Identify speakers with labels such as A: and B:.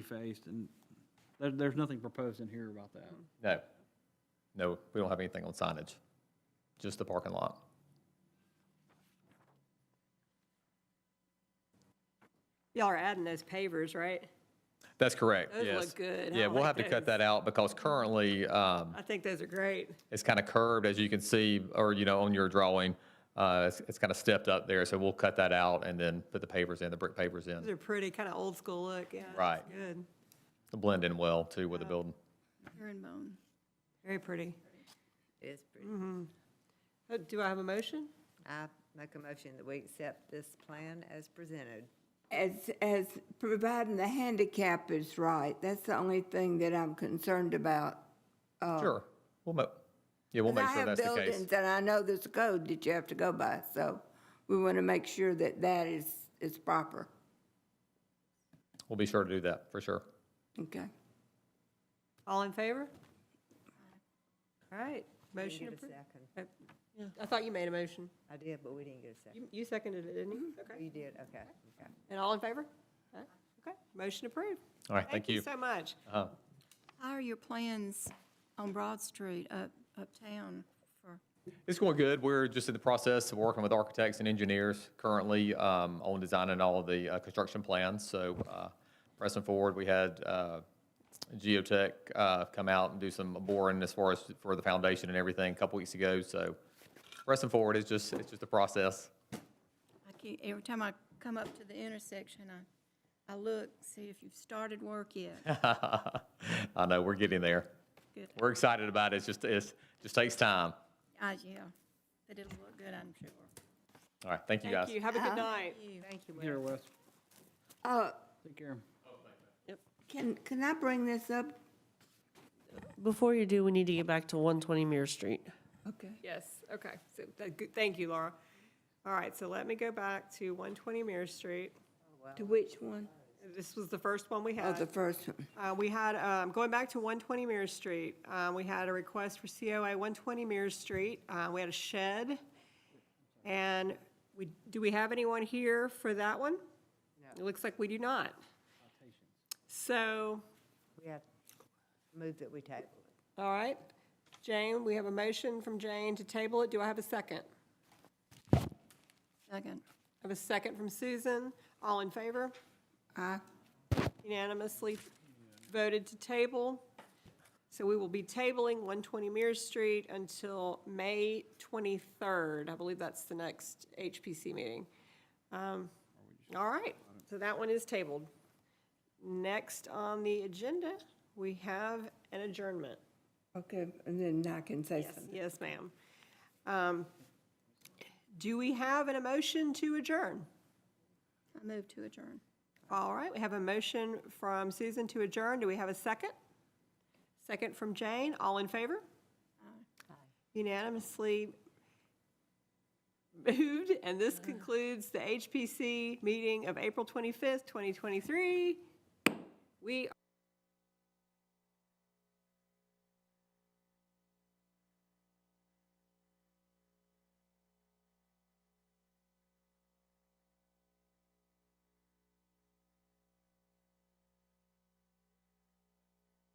A: refaced, and there, there's nothing proposed in here about that.
B: No, no, we don't have anything on signage, just the parking lot.
C: Y'all are adding those pavers, right?
B: That's correct,
C: Those
B: yes.
C: look good. I
B: Yeah, we'll
C: like
B: have to cut
C: those.
B: that out because currently, um,
C: I think those are great.
B: it's kind of curved, as you can see, or, you know, on your drawing. Uh, it's, it's kind of stepped up there, so we'll cut that out and then put the pavers in, the brick pavers
C: Those
B: in,
C: are pretty, kind of old school look, yeah. that's
B: Right.
C: Good,
B: to blend in well too
C: Uh,
B: with the building.
D: Here in Moan.
C: very pretty.
E: It is pretty.
C: Uh, Do I have a motion?
E: I make a motion that we accept this plan as presented.
F: As, as providing the handicap is right, that's the only thing that I'm concerned about.
C: oh.
B: Sure, we'll mo, yeah, we'll make sure that's the
F: I have
B: case.
F: buildings, and I know there's a code that you have to go by, so we want to make sure that that is, is proper,
B: We'll be sure to do that, for sure.
F: okay?
C: All in favor? All right,
E: We didn't
C: motion
E: get a
C: approved.
E: second.
C: I thought you made a motion.
E: I did, but we didn't get a second. Oh,
C: You- You seconded it, didn't you?
G: Mm-hmm.
C: Okay.
E: You did, okay, okay.
C: And all in favor? Huh? Okay, motion approved.
B: All right, thank you.
C: so much.
B: Uh,
D: How are your plans on Broad Street up, uptown for,
B: It's going good. We're just in the process of working with architects and engineers currently um, on designing all the uh, construction plans. So uh, pressing forward, we had uh, Geotech uh, come out and do some boring as far as for the foundation and everything a couple weeks ago. So pressing forward is just, it's just a process.
D: I keep, every time I come up to the intersection, I, I look, see if you've started work yet.
B: I know, we're getting there.
D: Good.
B: We're excited about it. It's just, it's, just takes time.
D: Ah, yeah, but it'll look good, I'm sure.
B: All right, thank you guys.
C: Thank you, have a good night.
E: Thank you,
A: Here,
E: Wes.
A: Wes,
F: Uh,
A: take care.
F: can, can I bring this up?
G: Before you do, we need to get back to 120 Mirror Street.
F: Okay.
C: Yes, okay, so, th- good- thank you, Laura. All right, so let me go back to 120 Mirror Street.
F: To which one?
C: This was the first one we
F: Oh,
C: had.
F: the first one.
C: Uh, We had, um, going back to 120 Mirror Street, uh, we had a request for COA 120 Mirror Street. Uh, We had a shed, and we, do we have anyone here for that one? It looks like we do not. So,
E: We have, move that we table.
C: all right, Jane, we have a motion from Jane to table it. Do I have a second?
D: Second.
C: I have a second from Susan. All in favor?
F: Aye.
C: unanimously voted to table. So we will be tabling 120 Mirror Street until May 23rd. I believe that's the next HPC meeting. Um, All right, so that one is tabled. Next on the agenda, we have an adjournment.
F: Okay, and then I can say something.
C: Yes, ma'am. Um, Do we have an emotion to adjourn?
D: I move to adjourn.
C: All right, we have a motion from Susan to adjourn. Do we have a second? Second from Jane. All in favor? Unanimously moved, and this concludes the HPC meeting of April 25th, 2023. We